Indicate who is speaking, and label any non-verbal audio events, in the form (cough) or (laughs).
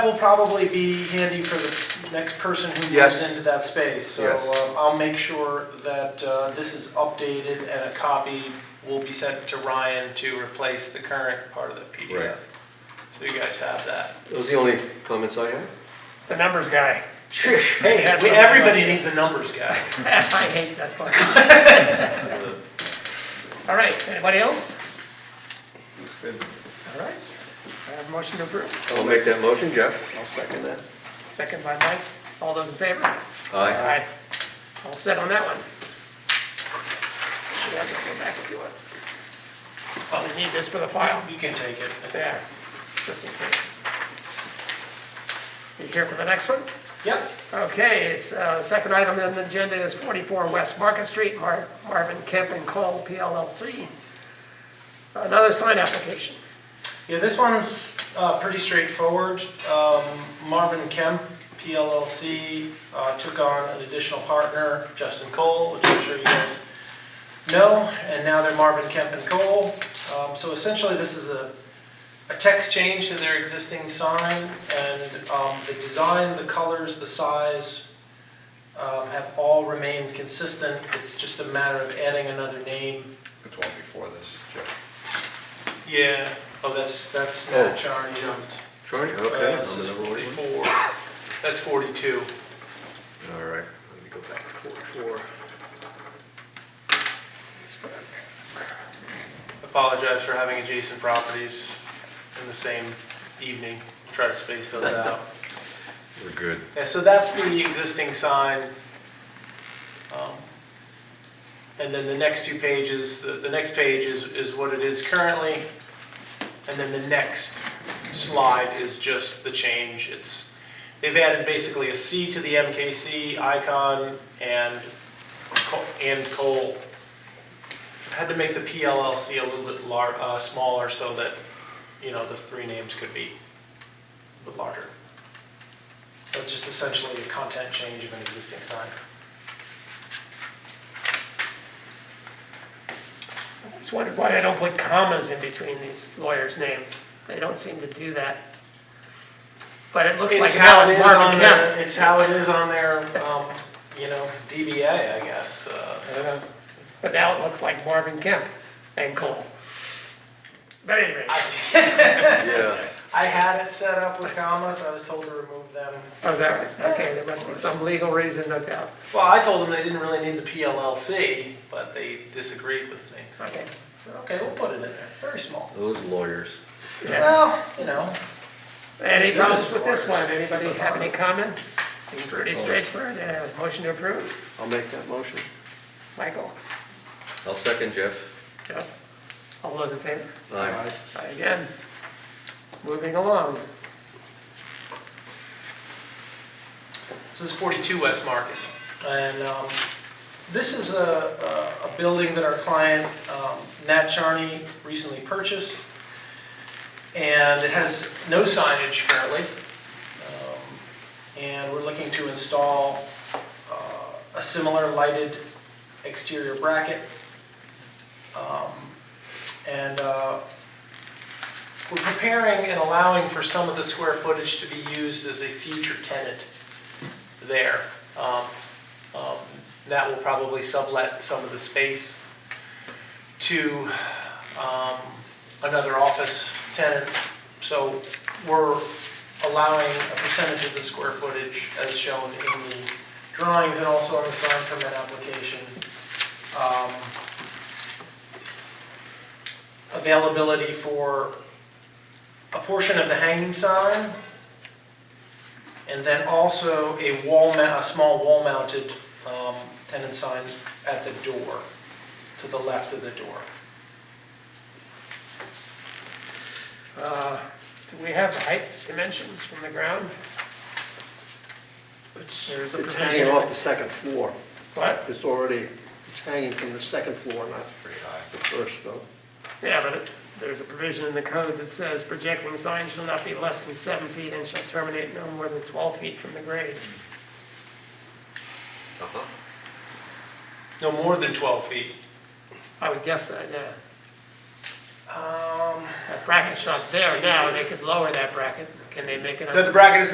Speaker 1: will probably be handy for the next person who moves
Speaker 2: Yes.
Speaker 1: into that space. So
Speaker 2: Yes.
Speaker 1: um, I'll make sure that uh, this is updated and a copy will be sent to Ryan to replace the current part of the
Speaker 2: Right.
Speaker 1: PDF. So you guys have that.
Speaker 2: Those are the only comments I have.
Speaker 3: The numbers (laughs) guy.
Speaker 1: Hey,
Speaker 3: have
Speaker 1: we-
Speaker 3: something
Speaker 1: everybody needs a numbers guy.
Speaker 3: I hate that part. All right, anybody else? All right, I have motion to approve.
Speaker 2: I'll make that motion, Jeff. I'll second that.
Speaker 3: Second by Mike. All those in favor?
Speaker 2: Aye.
Speaker 3: Aye. All set on that one? Yeah, just go back if you want. Probably need this for the file.
Speaker 1: You can take it.
Speaker 3: There, just in case. You here for the next one?
Speaker 1: Yep.
Speaker 3: Okay, it's, uh, the second item on the agenda is 44 West Market Street, Mar- Marvin Kemp and Cole PLLC. Another sign application.
Speaker 1: Yeah, this one's uh, pretty straightforward. Um, Marvin Kemp, PLLC, uh, took on an additional partner, Justin Cole, which I'm sure you guys know, and now they're Marvin Kemp and Cole. Um, So essentially, this is a a text change to their existing sign, and um, the design, the colors, the size um, have all remained consistent. It's just a matter of adding another name
Speaker 4: It's one before this, Jeff.
Speaker 1: Yeah, oh, that's, that's
Speaker 2: Oh.
Speaker 1: not Charlie jumped.
Speaker 2: Charlie,
Speaker 1: Uh,
Speaker 2: okay.
Speaker 1: this
Speaker 2: on the
Speaker 1: is
Speaker 2: number one.
Speaker 1: forty-four, that's forty-two.
Speaker 2: All right, let me go back to forty-four.
Speaker 1: Apologize for having adjacent properties in the same evening, try to space those out.
Speaker 2: We're good.
Speaker 1: Yeah, so that's the existing sign. Um, And then the next two pages, the, the next page is, is what it is currently. And then the next slide is just the change. It's, they've added basically a C to the MKC icon and, co- and coal. Had to make the PLLC a little bit lar, uh, smaller so that, you know, the three names could be a bit larger. That's just essentially a content change of an existing sign.
Speaker 3: Just wondered why they don't put commas in between these lawyers' names. They don't seem to do that. But it looks like
Speaker 1: It's
Speaker 3: now
Speaker 1: how it
Speaker 3: it's
Speaker 1: is on
Speaker 3: Marvin
Speaker 1: their,
Speaker 3: Kemp.
Speaker 1: it's how it is on their, um, you know, DBA, I guess. uh,
Speaker 3: But now it looks like Marvin Kemp and Cole. But anyways,
Speaker 2: (laughs) Yeah,
Speaker 1: I had it set up with commas, I was told to remove them.
Speaker 3: oh, is that right? Okay, there must be some legal reason, no doubt.
Speaker 1: Well, I told them they didn't really need the PLLC, but they disagreed with me. So,
Speaker 3: Okay.
Speaker 1: Okay, we'll put it in there, very small.
Speaker 2: those lawyers.
Speaker 3: Yeah.
Speaker 1: Well, you know,
Speaker 3: Any problems with this one? Anybody have any comments? Seems pretty straightforward. Uh, Motion to approve.
Speaker 2: I'll make that motion.
Speaker 3: Michael?
Speaker 2: I'll second, Jeff.
Speaker 3: Jeff? All those in favor?
Speaker 2: Aye.
Speaker 3: Aye Again, moving along.
Speaker 1: This is 42 West Market. And um, this is a, a a building that our client, um, Nat Charney, recently purchased. And it has no signage currently. Um, And we're looking to install uh, a similar lighted exterior bracket. Um, And uh, we're preparing and allowing for some of the square footage to be used as a future tenant there. Um, um, That will probably sublet some of the space to um, another office tenant. So we're allowing a percentage of the square footage as shown in the drawings and also on the sign permit application. Um, Availability for a portion of the hanging sign, and then also a wall, ma- a small wall-mounted um, tenant sign at the door, to the left of the door.
Speaker 3: Uh, Do we have height dimensions from the ground? There's a
Speaker 5: It's hanging off the
Speaker 3: provision.
Speaker 5: second floor.
Speaker 3: What?
Speaker 5: It's already, it's hanging from the second floor, not
Speaker 4: Pretty high.
Speaker 5: the first, though.
Speaker 3: Yeah, but it- there's a provision in the code that says projecting signs shall not be less than seven feet and shall terminate no more than 12 feet from the grade.
Speaker 2: Uh-huh.
Speaker 1: No more than 12 feet.
Speaker 3: I would guess that, yeah. That bracket's not there now, they could lower that bracket, can they make it?
Speaker 1: That the bracket is